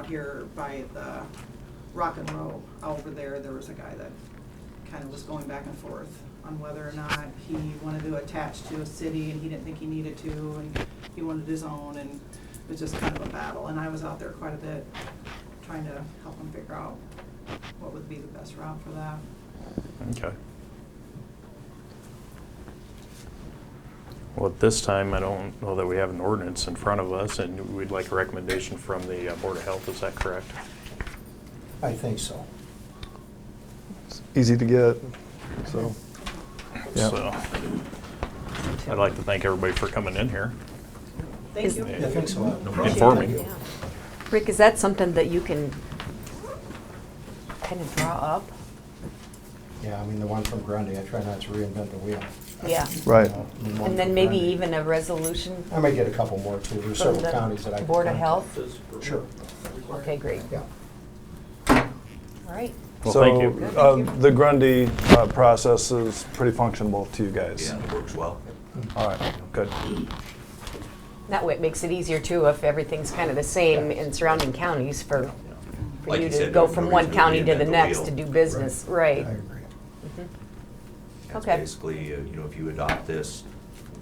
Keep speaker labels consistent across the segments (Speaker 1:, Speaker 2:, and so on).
Speaker 1: out here by the rock and roll, over there, there was a guy that kind of was going back and forth on whether or not he wanted to attach to a city and he didn't think he needed to and he wanted his own and it was just kind of a battle. And I was out there quite a bit trying to help him figure out what would be the best route for that.
Speaker 2: Okay. Well, at this time, I don't know that we have an ordinance in front of us, and we'd like a recommendation from the uh, Board of Health, is that correct?
Speaker 3: I think so.
Speaker 4: It's easy to get, so. Yeah.
Speaker 2: So, I'd like to thank everybody for coming in here.
Speaker 1: Thank
Speaker 5: Is-
Speaker 1: you.
Speaker 3: Yeah, I think so.
Speaker 2: Informing.
Speaker 3: Thank you.
Speaker 5: Rick, is that something that you can kind of draw up?
Speaker 3: Yeah, I mean, the one from Grundy, I try not to reinvent the wheel.
Speaker 5: Yeah.
Speaker 4: Right.
Speaker 3: You know,
Speaker 5: And then maybe
Speaker 3: one from
Speaker 5: even a resolution
Speaker 3: Grundy. I might get a couple more too, there's
Speaker 5: from
Speaker 3: several counties that I.
Speaker 5: the
Speaker 3: could
Speaker 5: Board of
Speaker 3: contact.
Speaker 5: Health?
Speaker 3: Sure,
Speaker 5: Okay, great.
Speaker 3: yeah.
Speaker 5: All right.
Speaker 2: Well, thank
Speaker 4: So,
Speaker 2: you.
Speaker 4: uh, the Grundy uh, process is pretty functional to you guys.
Speaker 6: Yeah, it works well.
Speaker 4: All right, good.
Speaker 5: That way it makes it easier too if everything's kind of the same in surrounding counties for, for
Speaker 6: Like
Speaker 5: you
Speaker 6: you
Speaker 5: to
Speaker 6: said,
Speaker 5: go
Speaker 6: no-
Speaker 5: from
Speaker 6: no
Speaker 5: one
Speaker 6: reason to
Speaker 5: county to
Speaker 6: reinvent
Speaker 5: the
Speaker 6: the
Speaker 5: next
Speaker 6: wheel.
Speaker 5: to do business.
Speaker 3: I
Speaker 5: Right.
Speaker 3: agree.
Speaker 6: That's
Speaker 5: Mm-hmm. Okay.
Speaker 6: Basically, uh, you know, if you adopt this,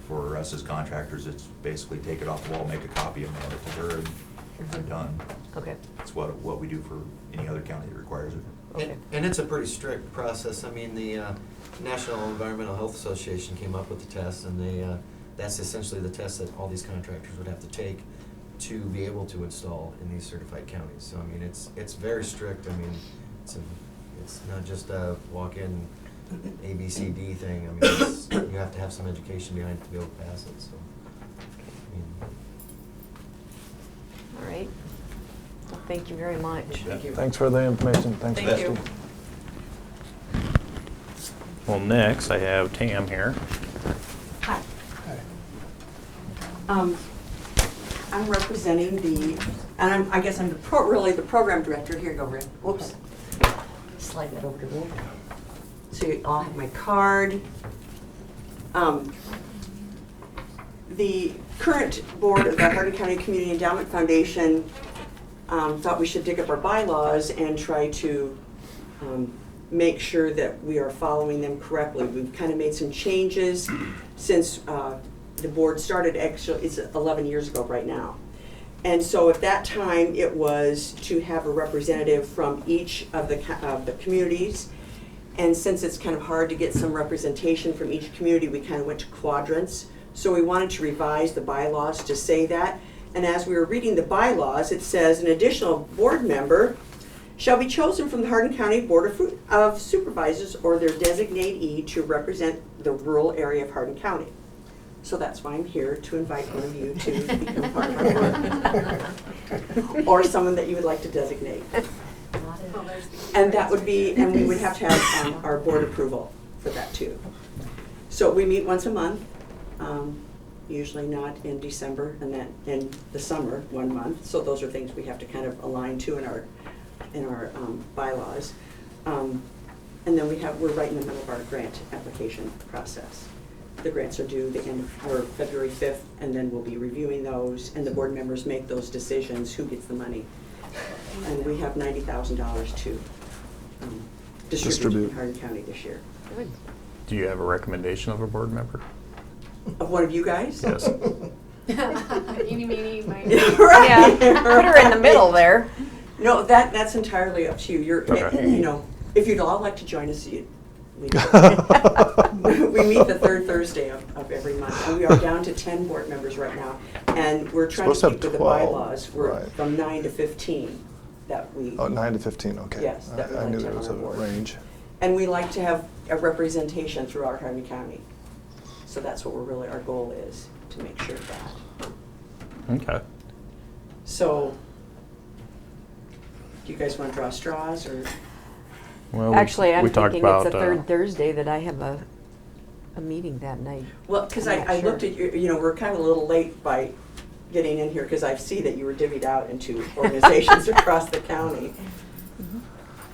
Speaker 6: for us as contractors, it's basically take it off the wall, make a copy and mail it to her, and I'm
Speaker 5: Mm-hmm.
Speaker 6: done.
Speaker 5: Okay.
Speaker 6: That's what, what we do for any other county that requires it.
Speaker 5: Okay.
Speaker 7: And, and it's a pretty strict process. I mean, the uh, National Environmental Health Association came up with the test, and they, uh, that's essentially the test that all these contractors would have to take to be able to install in these certified counties. So, I mean, it's, it's very strict. I mean, it's, a, it's not just a walk-in A, B, C, D thing. I mean, it's, you have to have some education behind it to be able to pass it, so. I mean,
Speaker 5: All right. Well, thank you very much.
Speaker 6: Thank you.
Speaker 4: Thanks for the information, thanks,
Speaker 1: Thank
Speaker 4: Christie.
Speaker 1: you.
Speaker 2: Well, next, I have Tam here.
Speaker 8: Hi,
Speaker 3: Hi.
Speaker 8: um, I'm representing the, and I'm, I guess I'm the pro, really the program director, here you go, Rick, whoops. Slide that over to me. So you all have my card. Um, The current board of the Hardin County Community Endowment Foundation um, thought we should dig up our bylaws and try to um, make sure that we are following them correctly. We've kind of made some changes since uh, the board started, actually, it's 11 years ago right now. And so at that time, it was to have a representative from each of the, co- of the communities. And since it's kind of hard to get some representation from each community, we kind of went to quadrants. So we wanted to revise the bylaws to say that. And as we were reading the bylaws, it says an additional board member shall be chosen from the Hardin County Board of Fu- of Supervisors or their designatee to represent the rural area of Hardin County. So that's why I'm here, to invite one of you to become part of our board, or someone that you would like to designate. And that would be, and we would have to have um, our board approval for that too. So we meet once a month, um, usually not in December and then in the summer, one month. So those are things we have to kind of align to in our, in our um, bylaws. Um, And then we have, we're right in the middle of our grant application process. The grants are due the end of, or February 5th, and then we'll be reviewing those, and the board members make those decisions, who gets the money. And we have $90,000 to um, distribute
Speaker 4: Distribute.
Speaker 8: in Hardin County this year.
Speaker 5: Good.
Speaker 2: Do you have a recommendation of a board member?
Speaker 8: Of one of you guys?
Speaker 2: Yes.
Speaker 9: Eeny, meeny, miny.
Speaker 8: Right,
Speaker 5: Yeah, put her in the
Speaker 8: right.
Speaker 5: middle there.
Speaker 8: No, that, that's entirely up to you. You're,
Speaker 2: Okay.
Speaker 8: you know, if you'd all like to join us, you. we- We meet the third Thursday of, of every month, and we are down to ten board members right now. And we're trying
Speaker 4: Supposed to
Speaker 8: to
Speaker 4: have
Speaker 8: keep to the
Speaker 4: 12,
Speaker 8: bylaws, we're
Speaker 4: right.
Speaker 8: from nine to fifteen that we.
Speaker 4: Oh, nine to 15, okay.
Speaker 8: Yes, that we
Speaker 4: I I
Speaker 8: like
Speaker 4: knew
Speaker 8: to
Speaker 4: there
Speaker 8: have
Speaker 4: was a
Speaker 8: on our board.
Speaker 4: range.
Speaker 8: And we like to have a representation throughout Harvey County. So that's what we're really, our goal is, to make sure of that.
Speaker 2: Okay.
Speaker 8: So, do you guys want to draw straws, or?
Speaker 2: Well, we-
Speaker 5: Actually, I'm
Speaker 2: we talked
Speaker 5: thinking it's the
Speaker 2: about, uh,
Speaker 5: third Thursday that I have a, a meeting that night.
Speaker 8: Well, because
Speaker 5: I'm
Speaker 8: I,
Speaker 5: not
Speaker 8: I looked
Speaker 5: sure.
Speaker 8: at you, you know, we're kind of a little late by getting in here, because I see that you were divvied out into organizations across the county.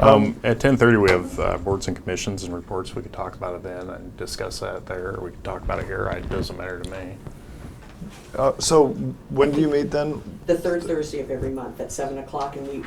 Speaker 2: Um, at ten thirty, we have uh, boards and commissions and reports. We could talk about it then and discuss that there. or We could talk about it here. I- It doesn't matter to me.
Speaker 4: Uh, so when do you meet then?
Speaker 8: The third Thursday of every month at seven o'clock, and we